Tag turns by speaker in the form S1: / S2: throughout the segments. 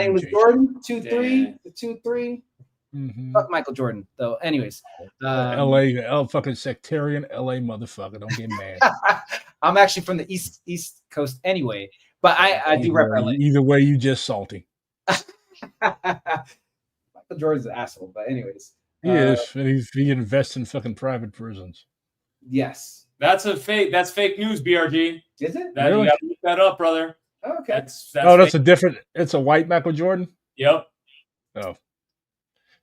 S1: name was Jordan, two three, the two three.
S2: Mhm.
S1: Fuck Michael Jordan, though. Anyways,
S3: Oh.
S1: um,
S2: LA, L oh, fucking sectarian LA motherfucker. Don't get mad.
S1: I'm actually from the east East Coast anyway, but I I do
S2: Either
S1: rep
S2: way- Either way, you just salty.
S1: LA. Michael Jordan's an asshole, but anyways,
S2: He
S1: Uh,
S2: is. He's, he invests in fucking private prisons.
S1: yes,
S3: That's a fake. That's fake news, BRG.
S1: is it
S3: That
S2: Really?
S3: you gotta look that up, brother.
S1: okay?
S3: That's that's.
S2: oh, that's
S3: fake.
S2: a different. It's a white Michael Jordan.
S3: yep.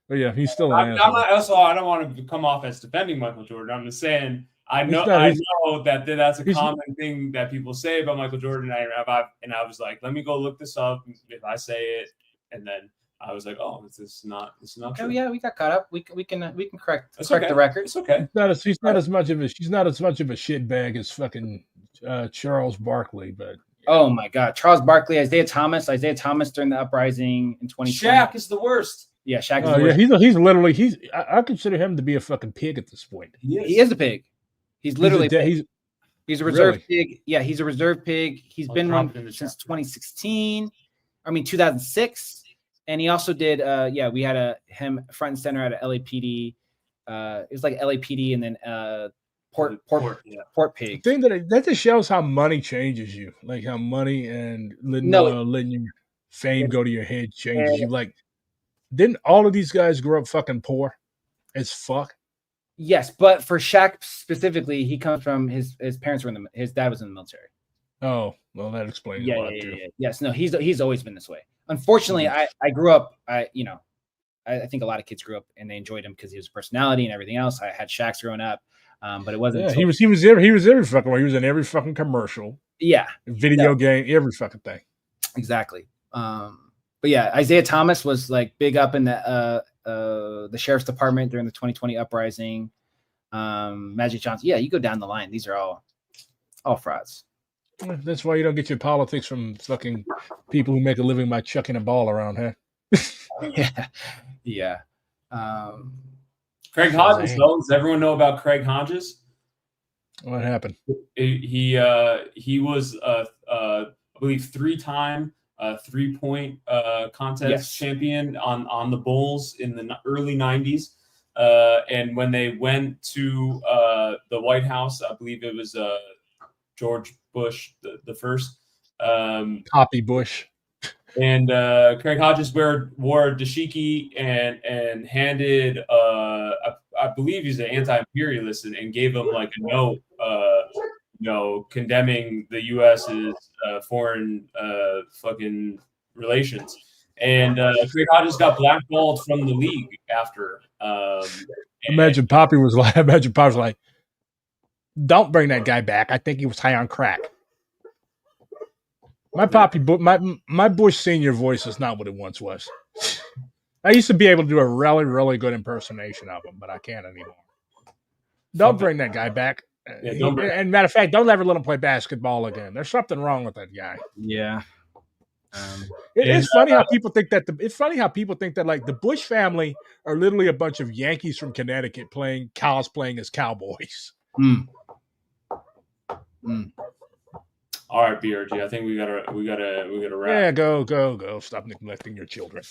S2: But yeah, he's still
S3: I,
S2: an
S3: I'm
S2: asshole.
S3: not. Also, I don't want to come off as defending Michael Jordan. I'm just saying. I
S2: He's
S3: know.
S2: not-
S3: I
S2: he's-
S3: know that th- that's a
S2: he's-
S3: common thing that people say about Michael Jordan. And I, I and I was like, let me go look this up. If I say it, and then I was like, oh, this is not. It's not.
S1: Oh
S3: true.
S1: yeah, we got caught up. We can we can uh, we can correct
S3: That's
S1: correct
S3: okay.
S1: the record.
S3: It's okay.
S2: He's not as he's not as much of a she's not as much of a shitbag as fucking uh, Charles Barkley, but
S1: Oh my God, Charles Barkley, Isaiah Thomas, Isaiah Thomas during the uprising in 2020.
S3: Shaq is the worst.
S1: yeah, Shaq is
S2: Oh,
S1: the
S2: yeah,
S1: worst.
S2: he's he's literally he's I, I consider him to be a fucking pig at this point.
S1: he is a pig. He's literally
S2: he's, a, de- he's
S1: He's a reserve
S2: Really?
S1: pig. Yeah, he's a reserve pig. He's
S3: Well,
S1: been one
S3: dropped in the
S1: since
S3: chapter.
S1: 2016. I mean 2006, and he also did. Uh, yeah, we had a him front and center at a LAPD. Uh, it was like LAPD and then uh, port port port,
S3: Yeah.
S2: the
S1: pig.
S2: thing that it- that just shows how money changes you, like how money and letting
S1: No,
S2: uh, letting your fame go to your head changes you. Like, didn't all of these guys grow up fucking poor as fuck?
S1: Yes, but for Shaq specifically, he comes from his his parents were in the his dad was in the military.
S2: Oh, well, that explains
S1: yeah,
S2: a
S1: yeah,
S2: lot
S1: yeah,
S2: too. Mm-hmm.
S1: yeah. Yes, no, he's he's always been this way. Unfortunately, I I grew up, I you know, I, I think a lot of kids grew up and they enjoyed him because he was a personality and everything else. I had Shaq's growing up, um, but it wasn't.
S2: Yeah,
S1: until-
S2: he was he was every, he was every fucking way. He was in every fucking commercial,
S1: yeah,
S2: video game, every fucking thing.
S1: exactly. Um, but yeah, Isaiah Thomas was like big up in the uh, uh, the sheriff's department during the 2020 uprising. Um, Magic Johnson. Yeah, you go down the line. These are all all frauds.
S2: Eh, That's why you don't get your politics from fucking people who make a living by chucking a ball around, huh?
S1: yeah, yeah. Um,
S3: Craig Hodges,
S2: Dang.
S3: though. Does everyone know about Craig Hodges?
S2: What happened?
S3: He he, uh, he was, uh, uh, I believe, three-time uh, three-point uh, contest
S1: Yes.
S3: champion on on the Bulls in the n- early '90s. Uh, and when they went to uh, the White House, I believe it was uh, George Bush the, the first. Um,
S2: Poppy Bush.
S3: and uh, Craig Hodges wore, wore a dashiki and and handed uh, I, I believe he's an anti-imperialist and, and gave him like a note uh, you know condemning the U.S.'s uh, foreign uh, fucking relations and uh, Craig Hodges got blackballed from the league after um, and-
S2: Imagine Poppy was like, imagine Poppy was like, don't bring that guy back. I think he was high on crack. My Poppy, Bu- my my Bush senior voice is not what it once was. I used to be able to do a really, really good impersonation of him, but I can't anymore. Don't bring that guy back.
S3: Yeah, don't bring-
S2: and matter of fact, don't ever let him play basketball again. There's something wrong with that guy.
S1: yeah. Um,
S2: It,
S3: And, uh,
S2: it's funny how people think that the it's funny how people think that like the Bush family are literally a bunch of Yankees from Connecticut playing cosplaying as cowboys.
S1: mm.
S3: all right BRG I think we gotta we gotta we gotta wrap
S2: Yeah, go, go, go. Stop neglecting your children.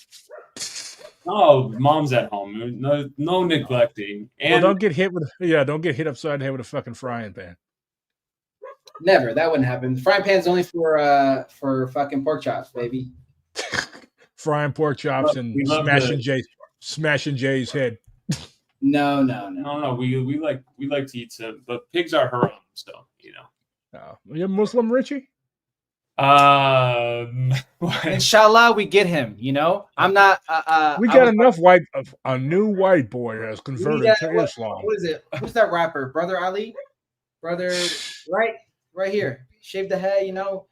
S3: no Oh, mom's at home no no neglecting
S2: Well,
S3: and
S2: don't get hit with yeah, don't get hit upside the head with a fucking frying pan.
S1: Never. That wouldn't happen. The frying pan's only for uh for fucking pork chops, baby.
S2: Frying pork chops
S3: Look,
S2: and
S3: we love
S2: smashing
S3: the-
S2: Jay's smashing Jay's head.
S1: No, no, no.
S3: No, no, we we like we like to eat some, but pigs are haram, so you know.
S2: Oh, you're Muslim, Richie?
S3: Um,
S1: Inshallah, we get him. You know, I'm not. Uh, uh,
S2: We
S1: I
S2: got
S1: was-
S2: enough white of a new white boy has converted
S1: Yeah,
S2: to
S1: what-
S2: Islam.
S1: What is it? Who's that rapper? Brother Ali, brother, right, right here. Shave the head. You know.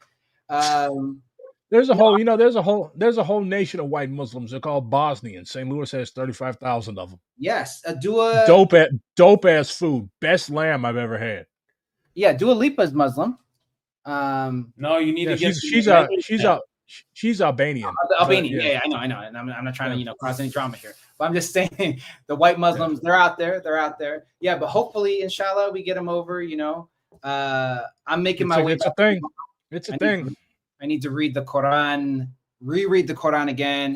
S1: Um.
S2: There's a whole, you know, there's a whole, there's a whole nation of white Muslims. They're called Bosnians. St. Louis has thirty-five thousand of them.
S1: Yes, a Dua.
S2: dope, at, dope ass food. Best lamb I've ever had.
S1: Yeah, Dua Lipa's Muslim. Um.
S3: no, you need
S2: Yeah,
S3: to get.
S2: she's
S3: the-
S2: she's a she's a she's Albanian.
S1: Al- Albanian.
S2: But,
S1: Yeah.
S2: yeah.
S1: yeah, I know, I know. And I'm, I'm not trying to,
S2: Yeah.
S1: you know, cause any drama here. But I'm just saying the white Muslims, they're out there. They're out there. Yeah, but hopefully, inshallah, we get them over, you know. Uh I'm making
S2: It's
S1: my
S2: a,
S1: way
S2: it's a
S1: back.
S2: thing. It's
S1: I
S2: a
S1: need
S2: thing.
S1: I need to read the Quran reread the Quran again